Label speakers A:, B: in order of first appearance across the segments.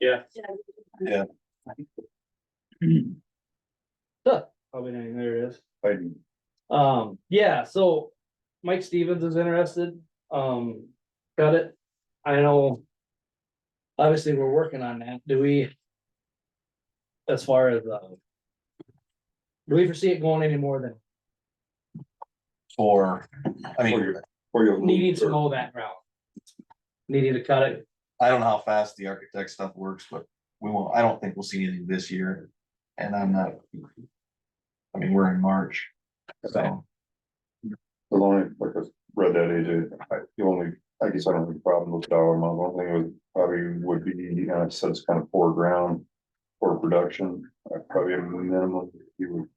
A: Yeah.
B: Yeah.
A: Huh, Probably dang, there it is.
B: Fighting.
A: Um, yeah, so Mike Stevens is interested, um, got it. I know. Obviously, we're working on that. Do we? As far as, uh. Do we foresee it going any more than
B: For, I
C: For
B: mean,
C: your- for your
A: needing to
C: roof,
A: go that route? Needing to cut it,
B: I don't know how fast the architect stuff works, but we won't, I don't think we'll see anything this year. And I'm not. I mean, we're in March. So,
C: As long as, like I read that, AJ, I- the only, I guess I don't have a problem with dollar amount, one thing was probably would be, uh, it says kind of poor ground. For production, I probably have a minimum, you would,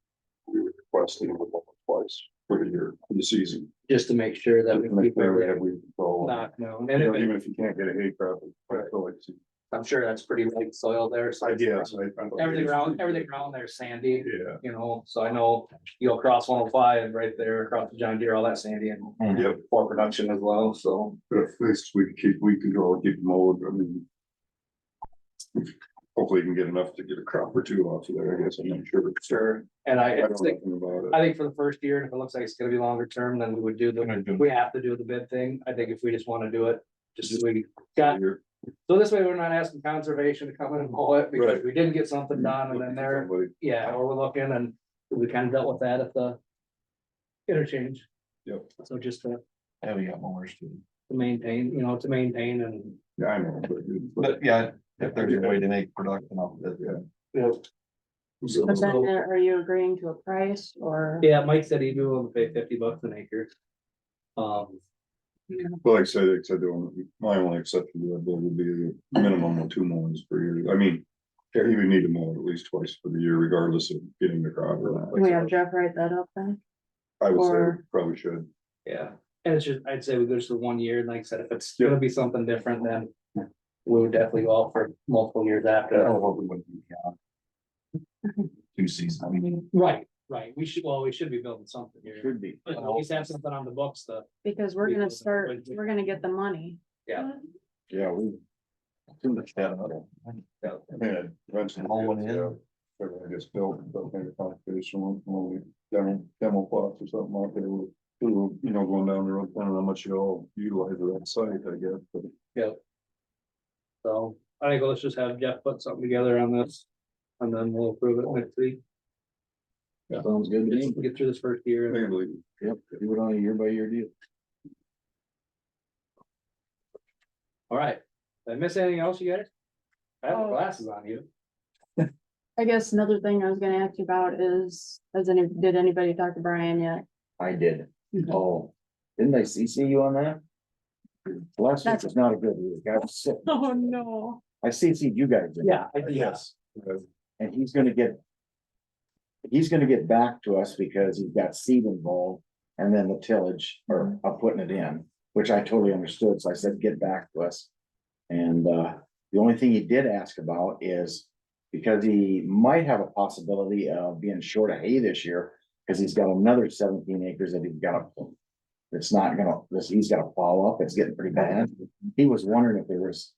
C: we would request it would go twice for the year, for the season.
A: just to make sure that we
C: Make
A: keep
C: sure we
A: it
C: have weed control.
A: knocked down. And
C: You know,
A: if it-
C: Even if you can't get a hay crop, I feel like, it's-
D: I'm sure that's pretty light soil there, so.
C: I guess, I. I-
A: everything around, everything around there is sandy,
C: Yeah,
A: you know, so I know you go across one oh five right there, across the John Deere, all that sandy and
C: yeah,
D: For production as well, so.
C: but at least we could keep, we control, keep mold, I mean. Hopefully you can get enough to get a crop or two off of there, I guess, I'm not sure.
A: Sure, and I,
C: I
A: I
C: don't know
A: think,
C: nothing about
A: I
C: it.
A: think for the first year, and if it looks like it's gonna be longer term, then we would do the,
B: gonna do-
A: we have to do the bid thing, I think if we just wanna do it. Just as we got,
C: You're-
A: so this way we're not asking conservation to come in and mow it, because we didn't get something done, and then they're,
C: Somebody-
A: yeah, or we're looking, and we kinda dealt with that at the. Interchange.
C: Yep.
A: So just to
B: yeah, we got more too.
A: to maintain, you know, to maintain and,
C: Yeah, I know, but.
B: But yeah, if there's a way to make production off of it, yeah.
A: you know,
C: So-
E: But then Uh, are are you agreeing to a price or?
A: yeah, Mike said he'd be willing to pay fifty bucks an acre. Um,
C: But like I said, like I said, the only- my only exception to that would be the minimum of two mowings per year, I mean. You would need to mow at least twice for the year regardless of getting the crop or not. Like I
E: We
C: said,
E: have Jeff write that up then?
C: I would say
E: or-
C: probably should,
A: yeah, and it's just, I'd say we go just for one year, and like I said, if it's gonna be something different, then. We would definitely go out for multiple years
B: I don't
A: after.
B: know what we would do, yeah. Two seasons, I mean.
A: Right, right, we should, well, we should be building something here,
B: Could be.
A: but at least have something on the books to,
E: Because we're
A: Yeah.
E: gonna start, we're gonna get the money.
A: Yeah.
C: yeah, we,
B: Too much that other.
C: I mean, I'd eventually.
B: Mow one in.
C: yeah, Everything gets built, but maybe conservation one, when we demo, demo plots or something out there, we'll- we'll, you know, going down the road, planning how much you all utilize of that site, I guess, but.
A: so. I think let's just have Jeff put something together on this, and then we'll approve it next week,
D: Sounds good
A: just get through this first year. and-
C: Mainly,
D: Yep, do it on a year by year deal.
A: All right, did I miss anything else, you guys? I have
E: Oh.
A: glasses on you.
E: I guess another thing I was gonna ask you about is, has any, did anybody talk to Brian yet?
D: I did.
E: Mhm.
D: Oh, didn't I CC you on that? Last week was not a good week. I was sick.
E: Oh, no.
D: I CC'd you guys. in it,
A: I
C: yes. uh,
D: And he's gonna get. He's gonna get back to us because he's got seed involved and then the tillage or of putting it in, which I totally understood. So I said, get back to us. And uh, the only thing he did ask about is because he might have a possibility of being short of hay this year. Cause he's got another seventeen acres that he's got. It's not gonna, this, he's gotta plow up. It's getting pretty bad. He was wondering if there was.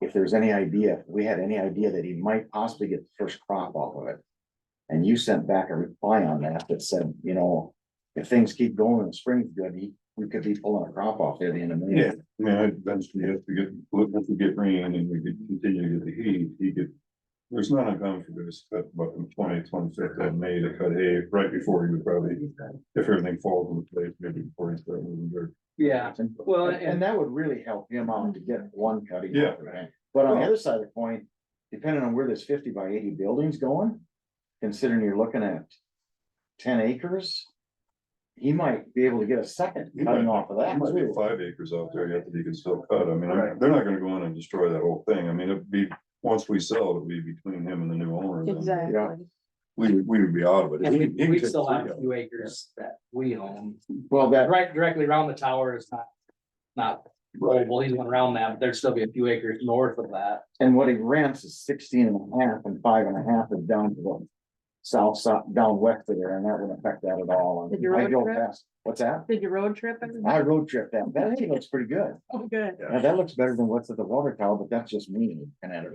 D: If there was any idea, if we had any idea that he might possibly get the first crop off of it. And you sent back a reply on that that said, you know, if things keep going and spring's good, he, we could be pulling a crop off there at the end of May.
C: Yeah, I mean, I'd eventually have to get, look, if we get rain and we could continue to get the heat, he could. There's not a gun for this, but about the twenty, twenty-fifth of May to cut hay, right before he would probably, if everything falls into place, maybe before he starts moving dirt.
A: Yeah, well,
D: And-
A: and-
D: And that would really help him out to get one cutting. off
C: Yeah.
D: the bank. But on the other side of the coin, depending on where this fifty by eighty building's going, considering you're looking at ten acres. He might be able to get a second
C: He
D: cutting
C: might-
D: off of
C: There
D: that
C: might be
D: too.
C: five acres out there yet that he can still cut, I mean, I'm- they're not gonna go in and destroy that whole thing, I mean, it'd be, once we sell, it'll be between him and the new owner. then.
E: Exactly.
C: We, would- we would be out of it.
A: and we,
C: He- he can
A: we
C: take
A: still
C: three
A: have a
C: out.
A: few acres that we own,
D: Well, that,
A: right, directly around the tower is not. Not,
C: Right,
A: well, he's went around that, but there'd still be a few acres north of that,
D: and what he rents is sixteen and a half and five and a half is down to the. South, south, down west of there, and that wouldn't affect that at all.
E: Did you
D: I
E: road
D: go
E: trip?
D: past- What's that?
E: Did your road trip? and-
D: I road trip that, that actually looks pretty good.
E: Oh, good.
D: Now, that looks better than what's at the water tower, but that's just me and editor.